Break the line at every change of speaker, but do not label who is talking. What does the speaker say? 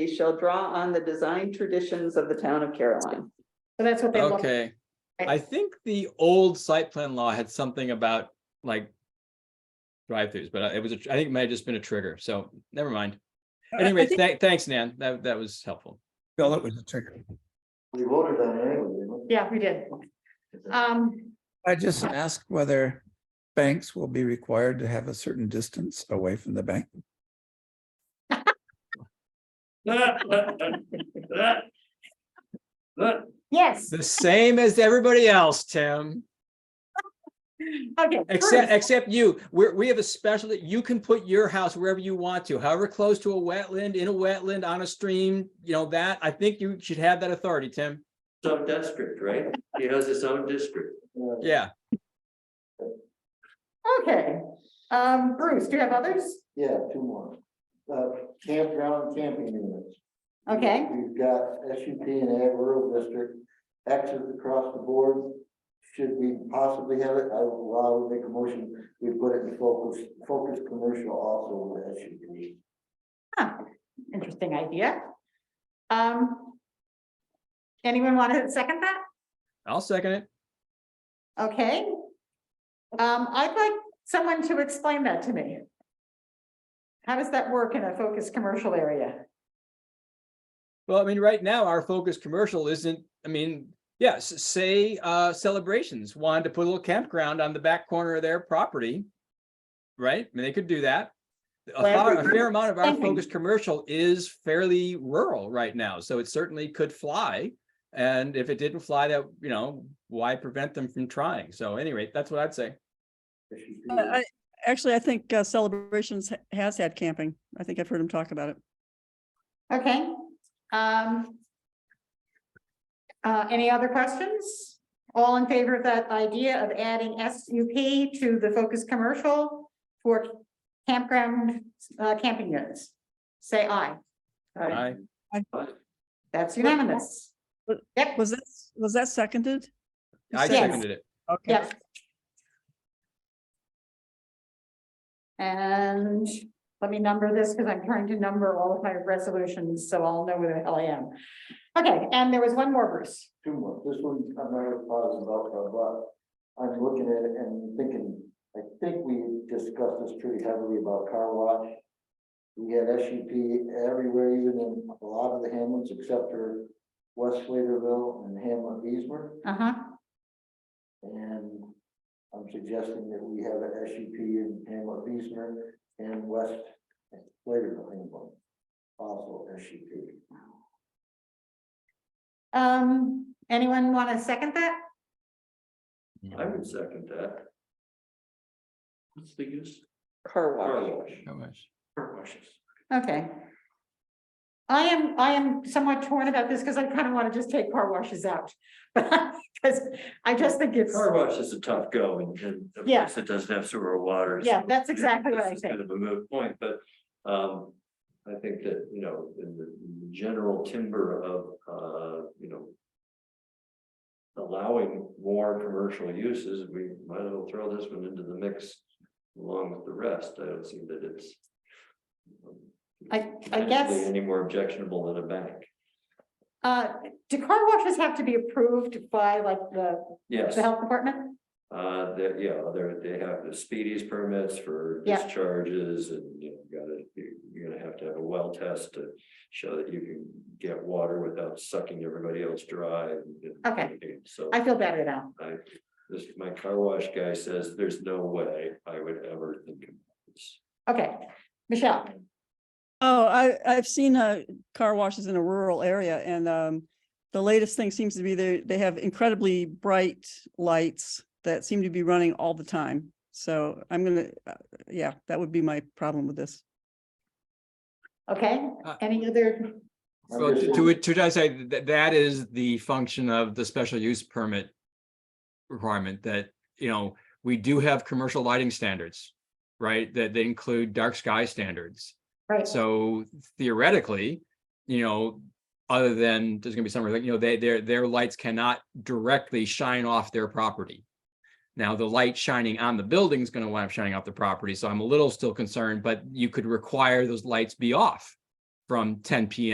They shall draw on the design traditions of the town of Caroline.
So that's what they want.
Okay,
Right.
I think the old site plan law had something about like. Drive-throughs, but uh, it was, a tr- I think it might have just been a trigger, so never mind. Anyway, tha- thanks, Nan, that, that was helpful.
Bill, it was a trigger.
We voted on it anyway, didn't
Yeah, we did. Um,
I just asked whether banks will be required to have a certain distance away from the bank.
yes,
The same as everybody else, Tim,
okay.
except,
first,
except you, we're, we have a special that you can put your house wherever you want to, however close to a wetland, in a wetland, on a stream, you know, that, I think you should have that authority, Tim.
Its own district, right? He has his own district.
Yeah,
Okay, um, Bruce, do you have others?
Yeah, two more. Uh, campground, camping units.
Okay,
We've got S U P and Ag Rural District, access across the board. Should we possibly have it? I will, I will make a motion. We put it in focus, focus commercial also with S U P.
interesting idea. Um. Anyone want to second that?
I'll second it.
Okay. Um, I'd like someone to explain that to me. How does that work in a focused commercial area?
Well, I mean, right now, our focus commercial isn't, I mean, yes, say, uh, celebrations wanted to put a little campground on the back corner of their property. Right? I mean, they could do that. A
Well,
far- a fair amount of our
camping.
focus commercial is fairly rural right now, so it certainly could fly. And if it didn't fly, that, you know, why prevent them from trying? So anyway, that's what I'd say.
Uh, I, actually, I think uh, Celebrations ha- has had camping. I think I've heard him talk about it.
Okay, um. Uh, any other questions? All in favor of that idea of adding SUP to the focus commercial for campground, uh, camping units? Say aye.
I,
That's unanimous.
But-
Yep,
Was that, was that seconded? You
I
seconded.
seconded it.
Okay.
yep. And let me number this because I'm trying to number all of my resolutions, so I'll know where the hell I am. Okay, and there was one more, Bruce.
Two more. This one, I'm not as positive about, uh, but I'm looking at it and thinking, I think we discussed this pretty heavily about car wash. We had S U P everywhere, even in a lot of the hamlets except for West Sladeville and Hamlet Beesmer.
Uh-huh.
And I'm suggesting that we have an S U P in Hamlet Beesmer and West Sladeville, Hamlet. Also S U P.
Um, anyone want to second that?
I would second that. What's the use?
Car
Car
wash.
wash. Car washes.
Okay. I am, I am somewhat torn about this because I kind of want to just take car washes out. Because I just think it's,
Car wash is a tough go and, and a
Yeah.
place that doesn't have sewer or water.
yeah, that's exactly what I
This is Kind
think.
of a moot point, but, um, I think that, you know, in the in the general timber of, uh, you know. Allowing more commercial uses, we might as well throw this one into the mix along with the rest. I don't see that it's. um,
I, I
potentially
guess,
Any more objectionable than a bank.
uh, do car washes have to be approved by like the,
Yes.
the health department?
Uh, that, yeah, they're, they have the speedies permits for
Yeah.
discharges and you know, gotta, you- you're gonna have to have a well test to. Show that you can get water without sucking everybody else dry. and-
Okay.
and So
I feel better now.
I, this, my car wash guy says, there's no way I would ever think of this.
Okay, Michelle,
Oh, I, I've seen, uh, car washes in a rural area and, um, the latest thing seems to be they, they have incredibly bright lights that seem to be running all the time. So I'm gonna, uh, yeah, that would be my problem with this.
okay,
Uh,
any other,
So to, to, which- to, I say that, that is the function of the special use permit requirement that, you know, we do have commercial lighting standards, right? That they include dark sky standards.
right?
So theoretically, you know, other than there's gonna be some, like, you know, they, their, their lights cannot directly shine off their property. Now, the light shining on the building is gonna wind up shining off the property, so I'm a little still concerned, but you could require those lights be off from ten PM